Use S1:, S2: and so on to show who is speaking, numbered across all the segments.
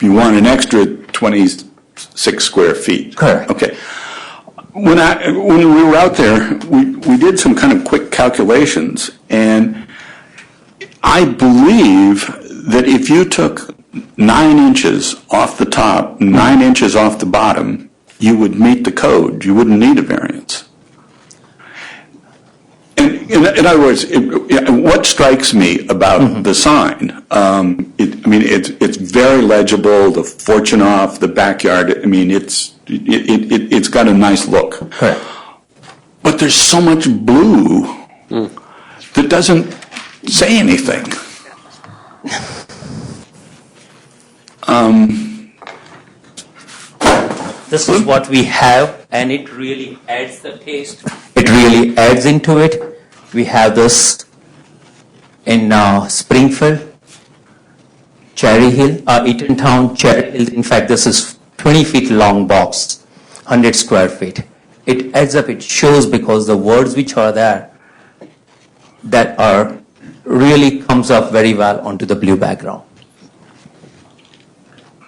S1: you want an extra 26 square feet.
S2: Correct.
S1: Okay. When I, when we were out there, we, we did some kind of quick calculations, and I believe that if you took nine inches off the top, nine inches off the bottom, you would meet the code. You wouldn't need a variance. In, in, in other words, it, yeah, what strikes me about the sign, um, it, I mean, it's it's very legible. The fortune off the backyard. I mean, it's it, it, it it's got a nice look,
S2: Correct.
S1: but there's so much blue that doesn't say anything.
S3: This is what we have, and it really adds the taste. It really adds into it. We have this in uh, Springfield, Cherry Hill, uh, Eatontown, Cherry Hill. In fact, this is 20 feet long box, 100 square feet. It adds up, it shows because the words which are there that are really comes up very well onto the blue background.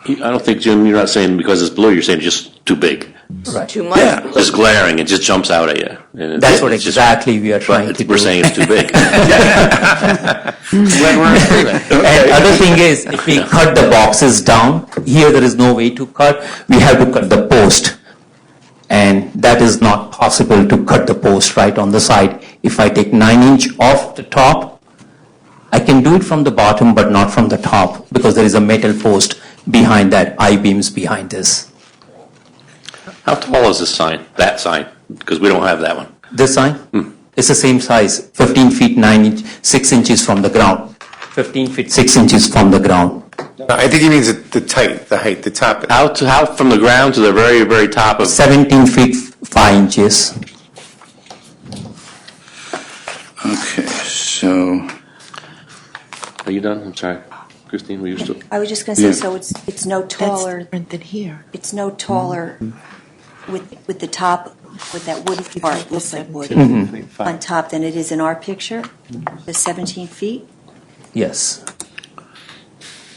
S4: I don't think, Jim, you're not saying because it's blue, you're saying just too big.
S3: Right.
S5: Too much.
S1: Yeah.
S4: Just glaring, it just jumps out at you. And
S3: That's
S4: it-
S3: what
S4: it's just-
S3: exactly we are trying
S4: but
S3: to do.
S4: We're saying it's too big.
S3: And other thing is, if we cut the boxes down, here there is no way to cut, we have to cut the post. And that is not possible to cut the post right on the side. If I take nine inch off the top, I can do it from the bottom but not from the top because there is a metal post behind that, I-beams behind this.
S4: How tall is this sign, that sign? Because we don't have that one.
S3: This sign is the same size, 15 feet 9 inch, 6 inches from the ground. 15 feet 6 inches from the ground.
S2: No, I think he means the height, the height, the top.
S4: How, to, how from the ground to the very, very top of,
S3: 17 feet 5 inches.
S1: Okay, so
S4: are you done? I'm sorry. Christine, were you still?
S5: I was just going to
S1: Yeah.
S5: say, so it's, it's no
S6: That's
S5: taller,
S6: different than here.
S5: it's no taller with, with the top, with that wooden part, looks like wood, on top than it is in our picture, the 17 feet?
S3: Yes,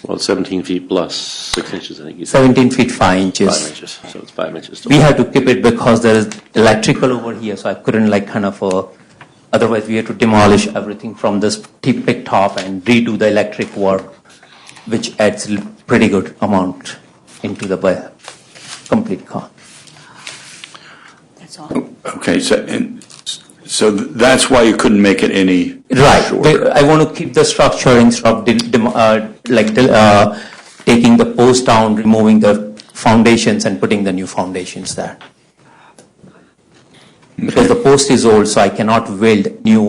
S4: Well, it's 17 feet plus six inches, I think you said.
S3: 17 feet 5
S4: Five
S3: inches.
S4: inches, so it's five inches.
S3: We had to keep it because there is electrical over here, so I couldn't like kind of, uh, otherwise we had to demolish everything from this tip top and redo the electric work, which adds l- pretty good amount into the bu- complete car.
S5: That's all.
S1: okay, so and so that's why you couldn't make it any
S3: Right,
S1: shorter.
S3: but I want to keep the structure instead of de- dem- uh, like del- uh, taking the post down, removing the foundations and putting the new foundations there. Because the post is old, so I cannot weld new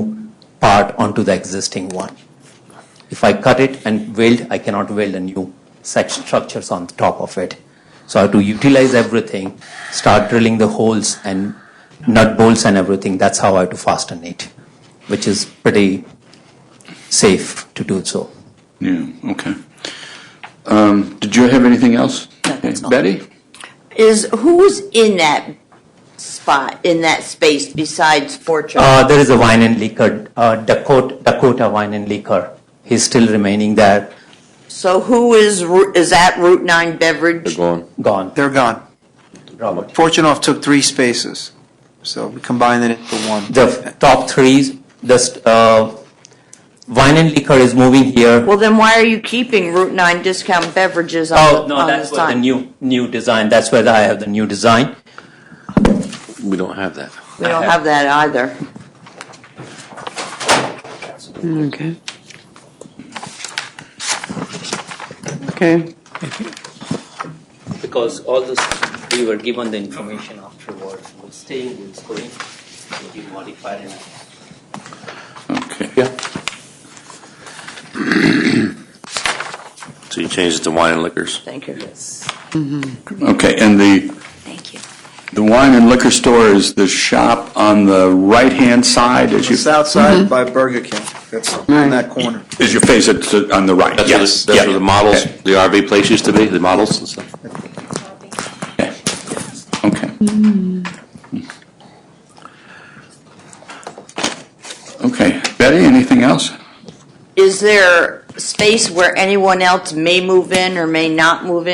S3: part onto the existing one. If I cut it and weld, I cannot weld a new such structures on top of it. So I have to utilize everything, start drilling the holes and nut bolts and everything. That's how I have to fasten it, which is pretty safe to do so.
S1: Yeah, okay. Um, Did you have anything else?
S5: No, that's all.
S1: Betty?
S7: Is who was in that spot in that space besides Fortune?
S3: Uh, there is a wine and liquor, uh, Dakota, Dakota Wine and Liquor. He's still remaining there,
S7: so who is Ru- is that Route Nine Beverage?
S4: gone.
S3: gone.
S8: They're gone. Fortunoff took three spaces, so we combined it into one.
S3: The top three, the st- uh, wine and liquor is moving here.
S7: Well, then why are you keeping Route Nine discount beverages on,
S3: Oh,
S7: the-
S3: no,
S7: on
S3: that's
S7: the
S3: what the new,
S7: sign?
S3: new design, that's where I have the new design.
S4: We don't have that.
S7: we don't have that either.
S9: Okay. Okay,
S3: Because all this, we were given the information afterwards, we're staying, we're going, will be modified and
S1: Okay.
S4: So you changed it to wine and liquors.
S7: Thank you.
S1: Okay, and the,
S5: Thank you.
S1: the wine and liquor store is the shop on the right-hand side as you,
S8: It's outside by Burger King, that's in that corner.
S1: as you face it to- on the right,
S4: That's where
S1: yes.
S4: the, that's
S1: yeah.
S4: where the models,
S1: Okay,
S4: the RV place used to be, the models and stuff.
S1: Okay.
S5: Hmm.
S1: Okay, Betty, anything else?
S7: Is there space where anyone else may move in or may not move in?